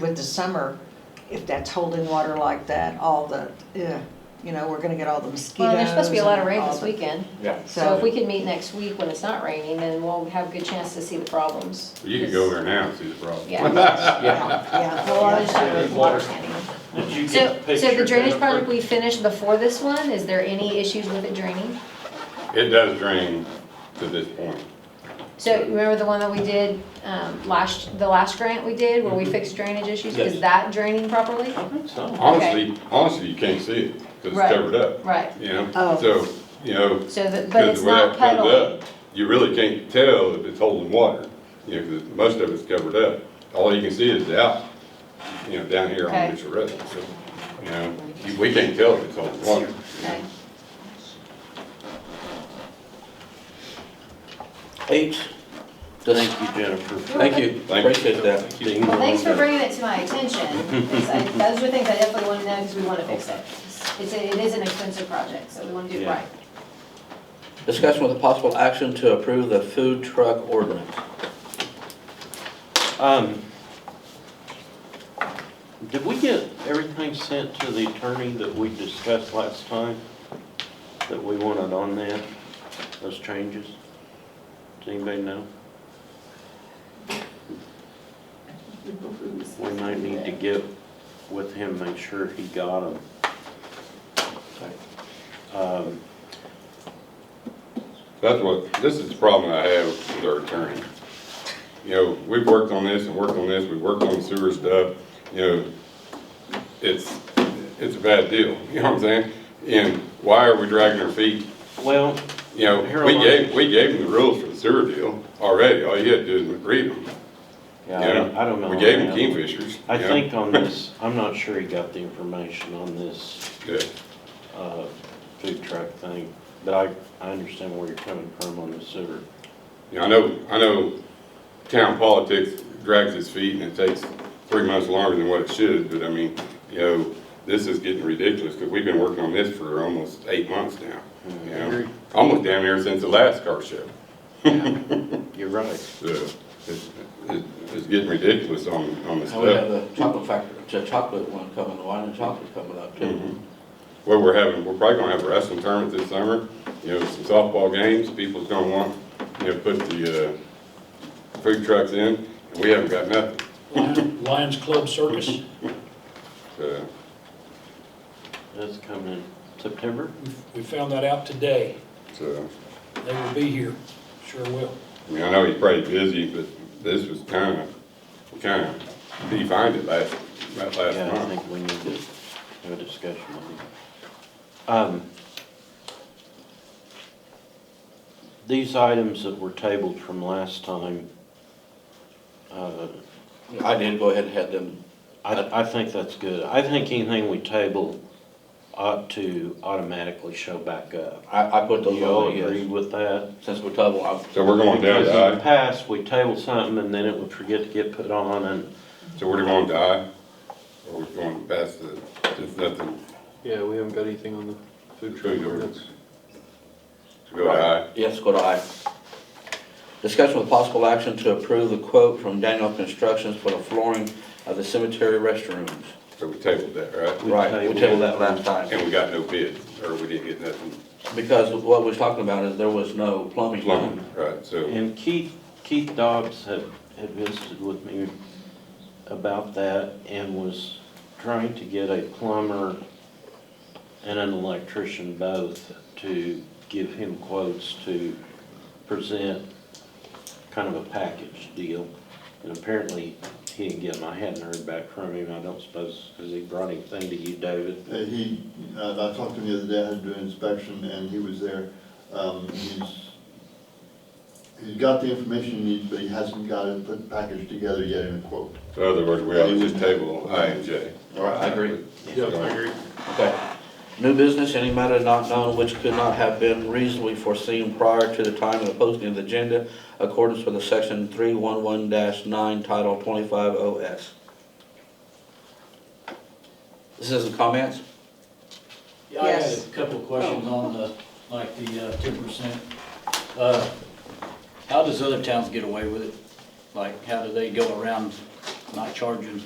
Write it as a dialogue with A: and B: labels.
A: With the summer, if that's holding water like that, all the, yeah, you know, we're gonna get all the mosquitoes.
B: Well, there's supposed to be a lot of
A: and
B: rain
A: all
B: this
A: the-
B: weekend,
C: Yeah.
B: so if we
A: So,
B: could meet next week when it's not raining, then we'll have a good chance to see the problems.
D: You can go there now and see the problem.
B: Yeah.
C: Yeah.
A: yeah,
B: Well, I'll just do it with water standing.
C: Did you
B: So,
C: get the
B: so the
C: picture,
B: drainage
C: Jennifer?
B: project we finished before this one, is there any issues with it draining?
D: It does drain to this point.
B: So remember the one that we did, um, last, the last grant we did where we
D: Mm-hmm.
B: fixed drainage issues? Is
C: Yes.
B: that draining properly?
C: I think so.
D: Honestly, honestly, you can't see it because
B: Right.
D: it's covered up,
B: Right,
D: you know?
A: Oh.
D: So, you know,
B: so, that- but
D: because
B: it's
D: the way
B: not
D: that comes
B: puddling.
D: up, you really can't tell if it's holding water, you know, because most of it's covered up. All you can see is the out, you know, down here
B: Okay.
D: on Mitchell Road. So, you know, you- we can't tell if it's holding water.
B: Okay.
E: H,
C: Thank you, Jennifer.
E: thank you,
D: Thank you.
E: appreciate that. being
B: Well, thanks for
E: on there.
B: bringing it to my attention, because I, those are things I definitely want to know, because we want to fix it. It's, a- it is an expensive project, so we want to do it
C: Yeah.
B: right.
E: Discussion with a possible action to approve the food truck ordinance.
C: Um, Did we get everything sent to the attorney that we discussed last time? That we wanted on that, those changes? Does anybody know? We might need to get with him, make sure he got them. Um,
D: That's what, this is the problem I have with our attorney. You know, we've worked on this and worked on this, we've worked on sewer stuff, you know, it's, it's a bad deal, you know what I'm saying? And why are we dragging our feet?
C: Well,
D: You know, we gave, we gave them the rules for the sewer deal already, all you had to do is agree to them.
C: yeah, I don't- Uh, I don't know.
D: We gave
C: on that.
D: them Kingfishers.
C: I
D: you know?
C: think on this, I'm not sure he got the information on this
D: Yeah,
C: uh, food truck thing, but I, I understand where you're coming from on the sewer.
D: You know, I know, I know town politics drags its feet and it takes three months longer than what it should, but I mean, you know, this is getting ridiculous, because we've been working on this for almost eight months now, you know? Almost damn near since the last car show.
C: You're right.
D: So, it's, it's- it's getting ridiculous on, on the
E: And Oh, we have
D: stuff.
E: the chocolate factory, the chocolate one coming, the wine and chocolate coming up too.
D: Well, we're having, we're probably gonna have a wrestling tournament this summer, you know, some softball games, people's gonna want, you know, put the, uh, food trucks in, and we haven't got nothing,
F: Lion- Lions Club Circus,
D: so.
C: That's coming in September?
F: we- we found that out today.
D: So,
F: They will be here, sure will.
D: I mean, I know he's probably busy, but this was kind of, kind of defined it last, that
C: Yeah, I
D: last month.
C: think we need to have a discussion on it. Um, These items that were tabled from last time, uh,
E: I did go ahead and had them,
C: I, I think that's good. I think anything we table ought to automatically show back up.
E: I, I put
C: Do
E: those
C: you all
E: on,
C: agree
E: yes,
C: with that?
E: since we told them,
D: So we're going down
C: Because
D: to
C: in the
D: I,
C: past, we tabled something and then it would forget to get put on and.
D: so we're going to I, or we're going past the, just nothing,
C: Yeah, we haven't got anything on the food
D: food ordinance. So Go to
E: I, yes, go to I. Discussion with possible action to approve the quote from Daniel Constructions for the flooring of the cemetery restrooms.
D: I, so we tabled that, right?
C: We
E: Right, we
C: tabled-
E: tabled that last time.
D: And we got no bids, or we didn't get nothing
E: Because what we was talking about is there was no plumbing.
D: plumbed, right, so,
C: And Keith, Keith Dobbs had, had visited with me about that and was trying to get a plumber and an electrician both to give him quotes to present kind of a package deal. And apparently, he didn't get 'em. I hadn't heard back from him, I don't suppose, has he brought anything to you, David?
G: Uh, He, uh, I talked to him the other day, I had to do an inspection, and he was there. Um, He's, he's got the information he needs, but he hasn't got it put packaged together yet in a quote.
D: so in other words, we ought to just table I and J.
E: All right, I agree.
D: Yeah, I agree.
E: Okay. New business, any matter not known which could not have been reasonably foreseen prior to the time of the posting of the agenda, accordance with the section three one one nine, title twenty-five OS. This isn't comments?
H: Yeah, I had
A: Yes.
H: a couple of questions on the, like the ten percent. How does other towns get away with it? Like, how do they go around not charging